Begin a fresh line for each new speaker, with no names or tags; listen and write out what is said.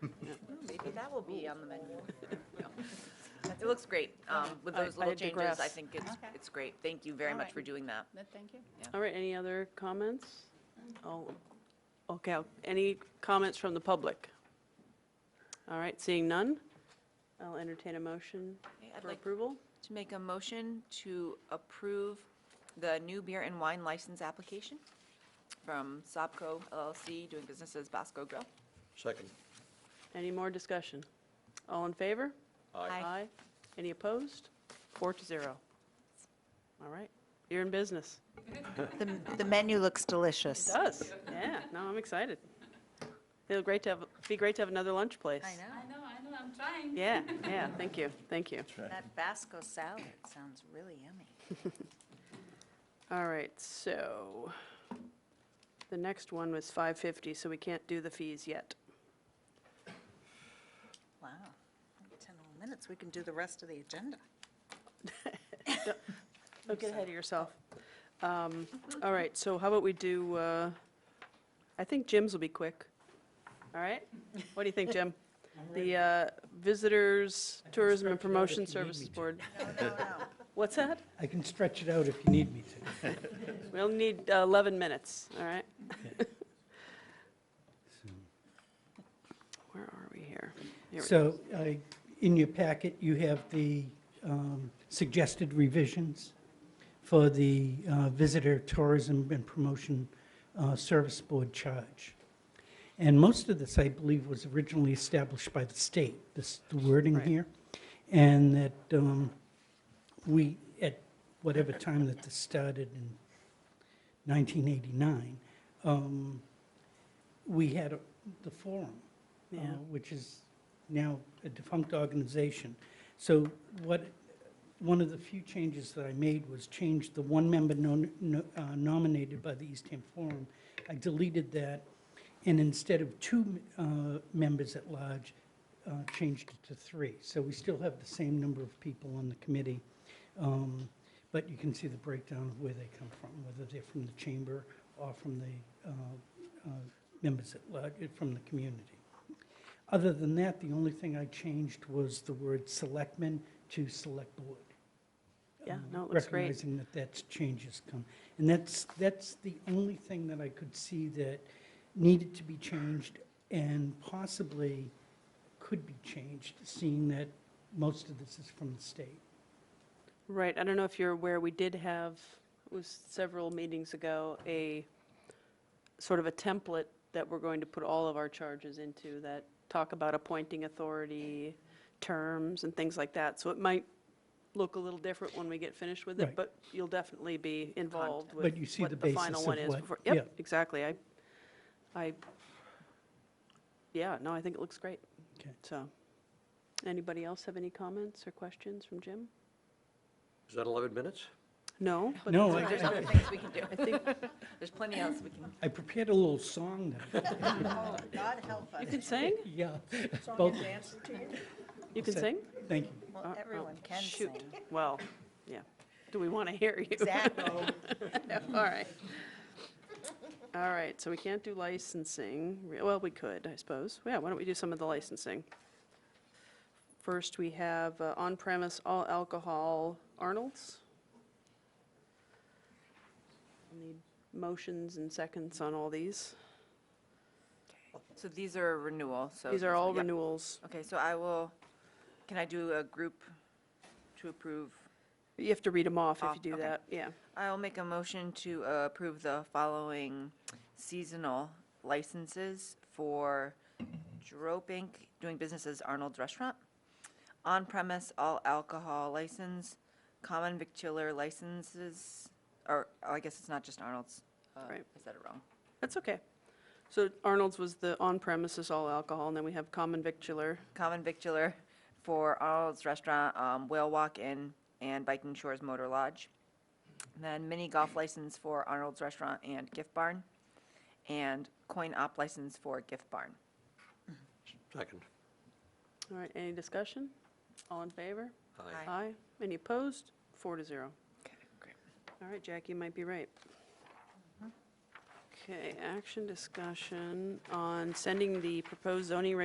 will be on the menu. It looks great. Um, With
I-
those
I
little changes, I
digress.
think it's,
Okay.
it's great. Thank you very
All
much
right.
for doing that.
No, Thank you.
All right, any other comments? Oh, okay, I'll- any comments from the public? All right, seeing none, I'll entertain a motion
Okay, I'd
for
like
approval.
to make a motion to approve the new beer and wine license application from Sobco LLC, doing business as Bosco Grill.
Second.
Any more discussion? All in favor?
Aye.
Any opposed? Four to zero. All right, you're in business.
The, the menu looks delicious.
It does, yeah, no, I'm excited. It'll great to have, be great to have another lunch place.
I know.
I know, I know, I'm trying.
Yeah, yeah, thank you, thank you.
That Basco salad sounds really yummy.
All right, so the next one was 550, so we can't do the fees yet.
Wow. 10 more minutes, we can do the rest of the agenda.
Don't get ahead of yourself. Um, All right, so how about we do, uh, I think Jim's will be quick. All right? What do you think, Jim? The uh, Visitors Tourism and Promotion
if you need me
Services
to.
Board. What's that?
I can stretch it out if you need me to.
We only need uh, 11 minutes, all right? Where are we here? Here we go.
So I- in your packet, you have the um, suggested revisions for the uh, Visitor Tourism and Promotion uh, Service Board charge. And most of this, I believe, was originally established by the state, this the wording
Right.
here. And that um, we, at whatever time that this started in 1989, um, we had a- the forum, uh,
Yeah.
which is now a defunct organization. So what, one of the few changes that I made was change the one member nom- no- uh, nominated by the Eastham Forum. I deleted that, and instead of two uh, members at large, uh, changed it to three. So we still have the same number of people on the committee. um, But you can see the breakdown of where they come from, whether they're from the chamber or from the uh, uh, members at large, uh, from the community. Other than that, the only thing I changed was the word selectmen to select board.
Yeah,
um,
no, it looks great.
Recognizing that that's changes come. And that's, that's the only thing that I could see that needed to be changed and possibly could be changed, seeing that most of this is from the state.
Right, I don't know if you're aware, we did have, it was several meetings ago, a sort of a template that we're going to put all of our charges into that talk about appointing authority, terms and things like that. So it might look a little different when we get finished with it,
Right.
but you'll definitely be involved with
But you see the
what the final
basis
one
of
is.
what-
before-
yeah.
Yep, exactly. I, I, yeah, no, I think it looks great.
Okay.
So, anybody else have any comments or questions from Jim?
Is that 11 minutes?
No? but
No,
that's
I-
There's
okay.
other things we can
I
do.
think
There's plenty else we can.
I prepared a little song now.
Oh, God help us.
you can sing?
Yeah.
Song
both-
and dance routine?
You can
Say-
sing?
Thank you.
Uh,
Well,
oh,
everyone can sing.
Shoot, well, yeah. Do we want to hear you?
Exactly.
No, All right. All right, so we can't do licensing. Re- Well, we could, I suppose. Yeah, why don't we do some of the licensing? First, we have uh, on-premise all alcohol Arnold's. Need motions and seconds on all these.
So these are renewal, so.
These are all
yeah.
renewals.
Okay, so I will, can I do a group to approve?
You have to read them off if
Off,
you do
okay.
that, yeah.
I'll make a motion to uh, approve the following seasonal licenses for Drope Inc., doing business as Arnold's Restaurant, on-premise all alcohol license, common victular licenses, or, oh, I guess it's not just Arnold's. Uh,
Right.
I said it wrong.
That's okay. So Arnold's was the on-premises all alcohol, and then we have common victular.
Common victular for Arnold's Restaurant, um, Whale Walk Inn, and Viking Shores Motor Lodge. And Then mini golf license for Arnold's Restaurant and Gift Barn, and coin op license for Gift Barn.
Second.
All right, any discussion? All in favor?
Aye.
Aye. Any opposed? Four to zero.
Okay, great.
All right, Jackie might be right.
Mm-hmm.
Okay, action discussion on sending the proposed zoning regulations